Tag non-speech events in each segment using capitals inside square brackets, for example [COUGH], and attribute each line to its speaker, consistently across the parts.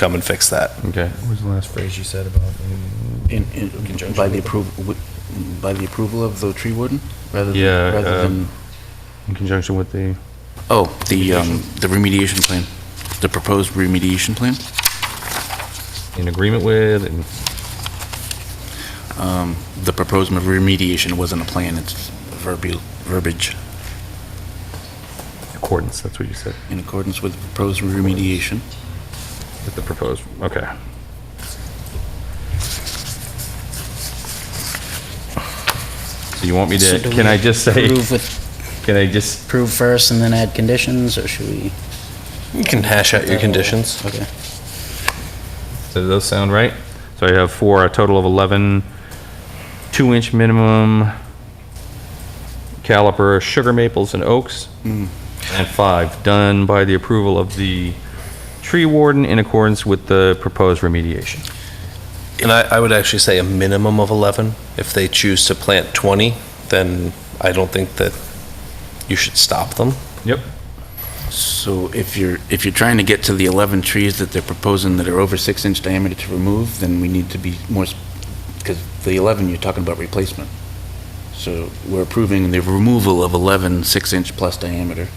Speaker 1: come and fix that.
Speaker 2: Okay.
Speaker 3: What was the last phrase you said about?
Speaker 4: In, in,
Speaker 1: conjunction
Speaker 4: by the
Speaker 1: with-
Speaker 4: approval, by the approval of the tree warden, rather
Speaker 2: Yeah,
Speaker 4: than, rather
Speaker 2: uh,
Speaker 4: than,
Speaker 2: In conjunction with the,
Speaker 4: oh, the, um, the remediation plan, the proposed remediation plan.
Speaker 2: in agreement with, and
Speaker 4: The proposed remediation wasn't a plan, it's verbiage, verbiage
Speaker 2: accordance, that's what you said,
Speaker 4: in accordance with proposed remediation.
Speaker 2: with the proposed, okay. So you want me
Speaker 5: So
Speaker 2: to,
Speaker 5: do
Speaker 2: can
Speaker 5: we
Speaker 2: I just say,
Speaker 5: Approve with,
Speaker 2: can I just,
Speaker 5: approve first and then add conditions, or should we? Uh,
Speaker 1: You can hash out your conditions.
Speaker 5: Okay.
Speaker 2: does those sound right? So I have four, a total of 11, two-inch minimum caliper sugar maples and oaks,
Speaker 5: Mm.
Speaker 2: and five, done by the approval of the tree warden in accordance with the proposed remediation.
Speaker 1: And I, I would actually say a minimum of 11. If they choose to plant 20, then I don't think that you should stop them.
Speaker 2: Yep.
Speaker 4: So if you're, if you're trying to get to the 11 trees that they're proposing that are over six inch diameter to remove, then we need to be more, because the 11, you're talking about replacement. So we're approving the removal of 11 six inch plus diameter.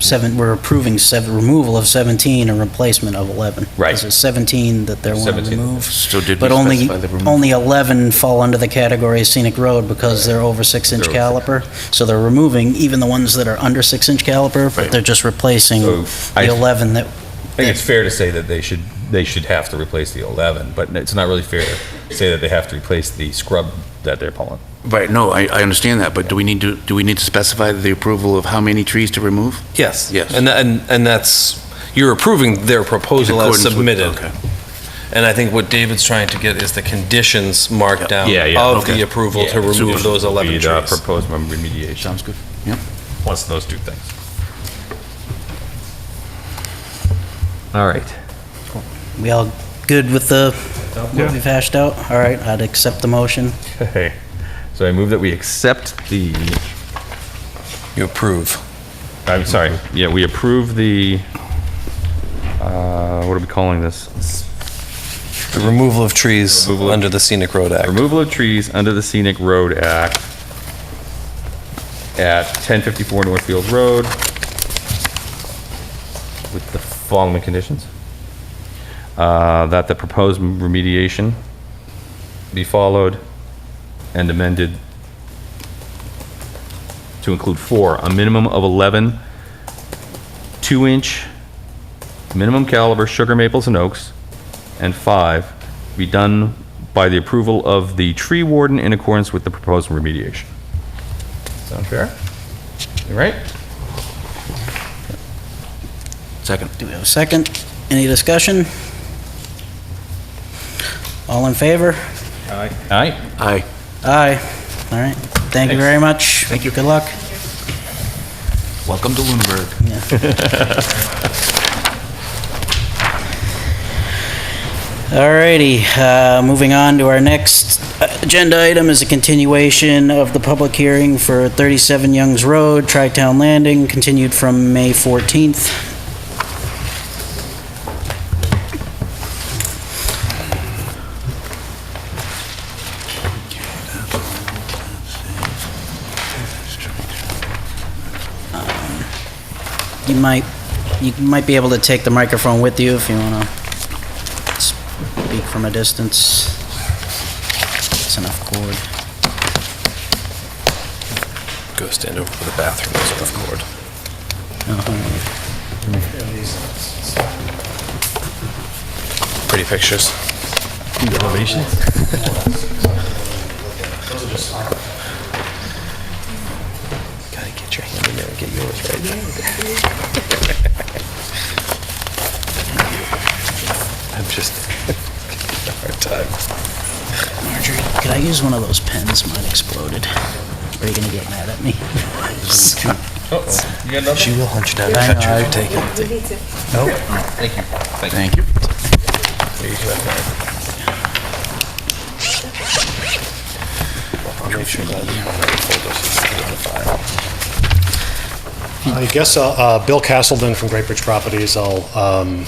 Speaker 5: Seven, we're approving seven, removal of 17 and replacement of 11.
Speaker 2: Right.
Speaker 5: Is it 17 that they want to
Speaker 2: 17.
Speaker 5: remove?
Speaker 4: So did we
Speaker 5: But only,
Speaker 4: specify the removal?
Speaker 5: only 11 fall under the category of scenic road because they're over six-inch
Speaker 2: They're over
Speaker 5: caliper. So they're removing even the ones that are under six-inch caliper,
Speaker 4: Right.
Speaker 5: but they're just replacing
Speaker 2: So
Speaker 5: the
Speaker 2: I-
Speaker 5: 11 that,
Speaker 2: I think it's fair to say that they should, they should have to replace the 11, but it's not really fair to say that they have to replace the scrub that they're pulling.
Speaker 4: Right, no, I, I understand that, but do we need to, do we need to specify the approval of how many trees to remove?
Speaker 1: Yes.
Speaker 4: Yes.
Speaker 1: And, tha- and, and that's, you're approving their proposal as
Speaker 4: Accordance with-
Speaker 1: submitted.
Speaker 4: okay.
Speaker 1: And I think what David's trying to get is the conditions marked down
Speaker 2: Yeah, yeah.
Speaker 1: of
Speaker 4: Okay.
Speaker 1: the approval to
Speaker 2: Yeah,
Speaker 1: remove those 11
Speaker 2: Be the uh,
Speaker 1: trees.
Speaker 2: Proposed remediation,
Speaker 4: Sounds good. Yep.
Speaker 2: plus those two things. All right.
Speaker 5: we all good with the, what we've hashed out? All right, I'd accept the motion.
Speaker 2: Okay. So I move that we accept the,
Speaker 1: You approve.
Speaker 2: I'm sorry, yeah, we approve the, uh, what are we calling this?
Speaker 1: The removal of trees
Speaker 2: Removal of-
Speaker 1: under the Scenic Road Act.
Speaker 2: Removal of trees under the Scenic Road Act at 1054 Northfield Road with the following conditions. Uh, That the proposed remediation be followed and amended to include four, a minimum of 11 two-inch minimum caliber sugar maples and oaks, and five, be done by the approval of the tree warden in accordance with the proposed remediation. Sound fair? You right?
Speaker 4: Second.
Speaker 5: Do we have a second? Any discussion? All in favor?
Speaker 2: Aye. Aye.
Speaker 4: Aye.
Speaker 5: Aye. All right, thank you
Speaker 2: Thanks.
Speaker 5: very much. Thank you. Good luck.
Speaker 4: Welcome to Lunenburg.
Speaker 5: Alrighty, uh, moving on to our next agenda item is a continuation of the public hearing for 37 Youngs Road, Tri-Town Landing, continued from May 14th. You might, you might be able to take the microphone with you if you want to speak from a distance. It's enough cord.
Speaker 1: Go stand over for the bathroom, there's enough cord. Pretty pictures. Gotta get your hand in there and get yours right. [LAUGHS] I'm just, hard time.
Speaker 5: Marjorie, could I use one of those pens? Mine exploded. Are you gonna get mad at me? [LAUGHS]
Speaker 1: She will hunt you down,
Speaker 5: I
Speaker 1: cut you,
Speaker 5: know,
Speaker 1: if you take it.
Speaker 4: Thank you.
Speaker 6: I guess uh, uh, Bill Castleton from Great Bridge Properties, I'll um,